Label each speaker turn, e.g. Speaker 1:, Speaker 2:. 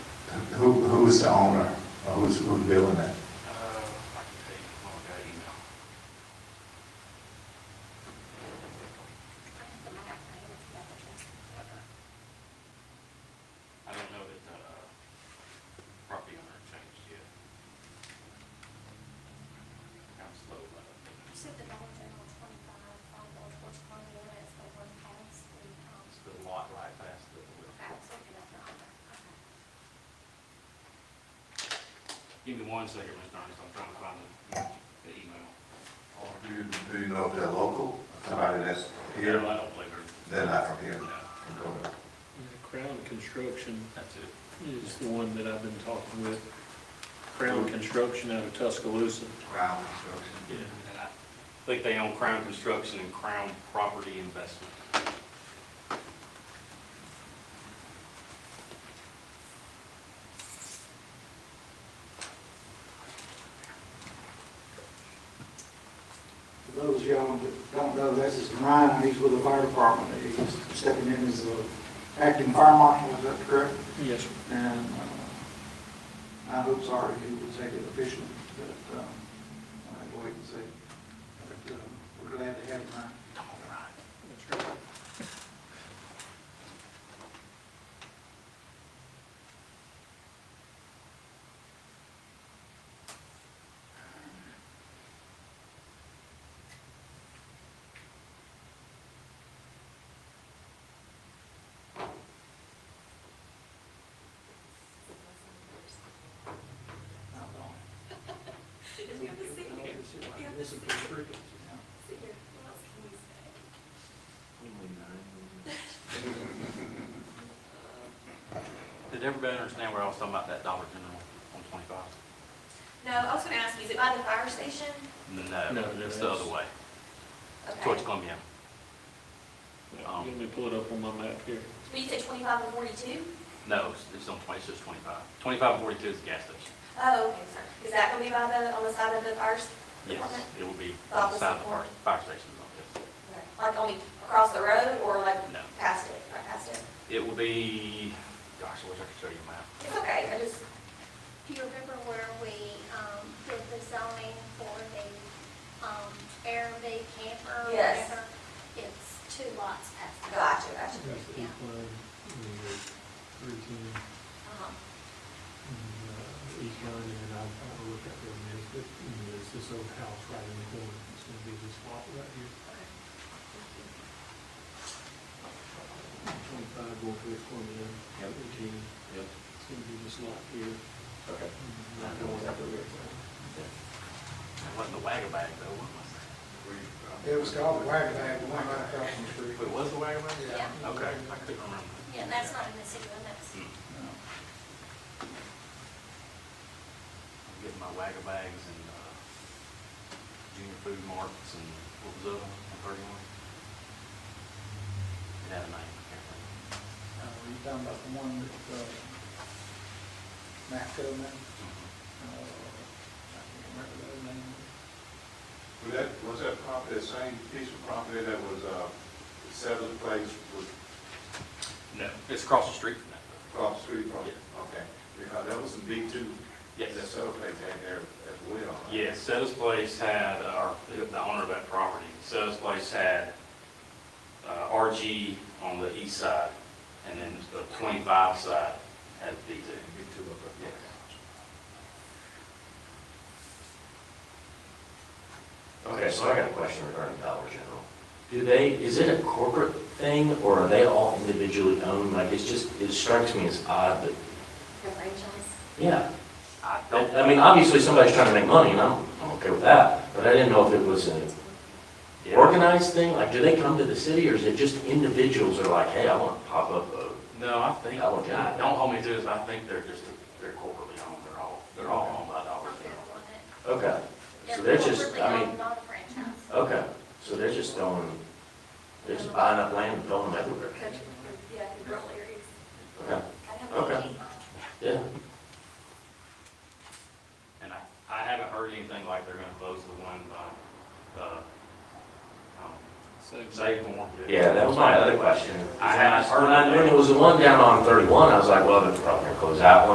Speaker 1: who's the owner, or who's, who's building it?
Speaker 2: Uh, I can tell you, well, I got an email. I don't know that the uh, property owner changed yet. I'm slow, uh, but
Speaker 3: You said the Dollar General twenty-five, on Old Horse Pond, you know, that's the one pass, the, um,
Speaker 2: it's the lot right past the wood.
Speaker 3: I was looking at the other. Okay.
Speaker 2: Give me one second, Mr. Ernest, I'm trying to find the, the email.
Speaker 1: Oh, Do you, do you know if they're local, somebody that's
Speaker 2: No,
Speaker 1: here,
Speaker 2: I don't believe her.
Speaker 1: they're not from here?
Speaker 2: No,
Speaker 4: Crown Construction
Speaker 2: that's it.
Speaker 4: is the one that I've been talking with. Crown Construction out of Tuscaloosa.
Speaker 1: Crown Construction.
Speaker 4: Yeah.
Speaker 2: And I think they own Crown Construction and Crown Property Investment.
Speaker 5: For those of y'all that don't know, this is Ryan, he's with the fire department, he's stepping in as the acting fire marshal, is that correct?
Speaker 4: Yes, sir.
Speaker 5: And uh, I hope, sorry, he would take it officially, but um, I wait and see. But uh, we're glad to have him, Ryan.
Speaker 4: That's right.
Speaker 5: This is pretty freaky.
Speaker 3: So here, what else can we say?
Speaker 2: Did everybody understand where I was talking about that Dollar General on twenty-five?
Speaker 3: No, I was gonna ask, you, is it by the fire station?
Speaker 2: No,
Speaker 4: No, no,
Speaker 2: it's the
Speaker 4: that's-
Speaker 2: other way,
Speaker 3: Okay.
Speaker 2: towards Columbia.
Speaker 4: Let me pull it up on my map here.
Speaker 3: Will you say twenty-five and forty-two?
Speaker 2: No, it's- it's on twenty, it's just twenty-five. Twenty-five and forty-two is the gas station.
Speaker 3: Oh, okay, sorry. Is that gonna be by the, on the side of the fire s-
Speaker 2: Yes,
Speaker 3: department?
Speaker 2: it will be
Speaker 3: The
Speaker 2: on the
Speaker 3: opposite
Speaker 2: side of the fire,
Speaker 3: corner.
Speaker 2: fire station's office.
Speaker 3: Okay. Like only across the road or like
Speaker 2: No.
Speaker 3: past it, right past it?
Speaker 2: It will be, gosh, I wish I could show you a map.
Speaker 3: It's okay, I just,
Speaker 6: Do you remember where we um, did the zoning for the um, Airbnb camper? or
Speaker 3: Yes.
Speaker 6: whatever? It's two lots past that.
Speaker 3: gotcha, gotcha.
Speaker 7: That's the
Speaker 6: Yeah.
Speaker 7: plan, and the routine,
Speaker 3: Uh-huh.
Speaker 7: and uh, each line, and then I'll, I'll look at their minutes, but you know, there's this old house right in the corner, it's gonna be this lot right here, twenty-five, going to the corner there,
Speaker 1: Yep.
Speaker 7: eighteen,
Speaker 2: Yep.
Speaker 7: it's gonna be this lot here. Mm,
Speaker 1: Okay.
Speaker 7: and that lot over there.
Speaker 2: It wasn't the wagon bag though, what
Speaker 5: It was called the Wagon Bag, the one right across the street.
Speaker 2: was it? It was the wagon bag?
Speaker 6: Yeah.
Speaker 2: Okay, I couldn't remember.
Speaker 6: Yeah, and that's not in the city limits.
Speaker 2: Hmm.
Speaker 5: Uh,
Speaker 2: I'm getting my wagon bags and, uh, junior food markets and what was the other one, thirty-one? It had a name, I can't remember.
Speaker 5: Uh, Were you talking about the one that, uh, Matco, man?
Speaker 2: Mm-hmm.
Speaker 5: Uh, I can't remember the name.
Speaker 1: Was that, was that property, that same piece of property that was, uh, settled place was
Speaker 2: No, it's across the street from that.
Speaker 1: across the street from? Okay, because that was the B two,
Speaker 2: Yes.
Speaker 1: that settled place had there as well. right?
Speaker 2: Yeah, Setta's Place had, uh, the owner of that property, Setta's Place had uh, RG on the east side, and then the 25 side had B2.
Speaker 1: B two of it.
Speaker 2: Yeah.
Speaker 8: Okay, so I got a question regarding Dollar General. Do they, is it a corporate thing, or are they all individually owned? Like, it's just, it strikes me as odd, but,
Speaker 3: The franchise?
Speaker 8: yeah.
Speaker 2: I
Speaker 8: I
Speaker 2: don't,
Speaker 8: I mean, obviously, somebody's trying to make money, and I'm, I'm okay with that, but I didn't know if it was an
Speaker 2: Yeah.
Speaker 8: organized thing, like, do they come to the city, or is it just individuals are like, hey, I want to pop up a
Speaker 2: no, I think,
Speaker 8: Dollar General?
Speaker 2: don't hold me to this, I think they're just, they're corporately owned, they're all, they're all owned by Dollar General.
Speaker 8: Okay, so they're just,
Speaker 6: Corporately
Speaker 8: I mean,
Speaker 6: owned, Not a franchise.
Speaker 8: okay, so they're just throwing, they're just buying up land and throwing them everywhere.
Speaker 3: Country, yeah, the rural areas.
Speaker 8: Okay,
Speaker 3: I don't know.
Speaker 8: Okay. yeah.
Speaker 2: And I, I haven't heard anything like they're gonna close the one by, uh, um, Save More.
Speaker 8: Yeah, that was my other question.
Speaker 2: I had-
Speaker 8: When I, when it was the one down on thirty-one, I was like, well, they're probably gonna close that one.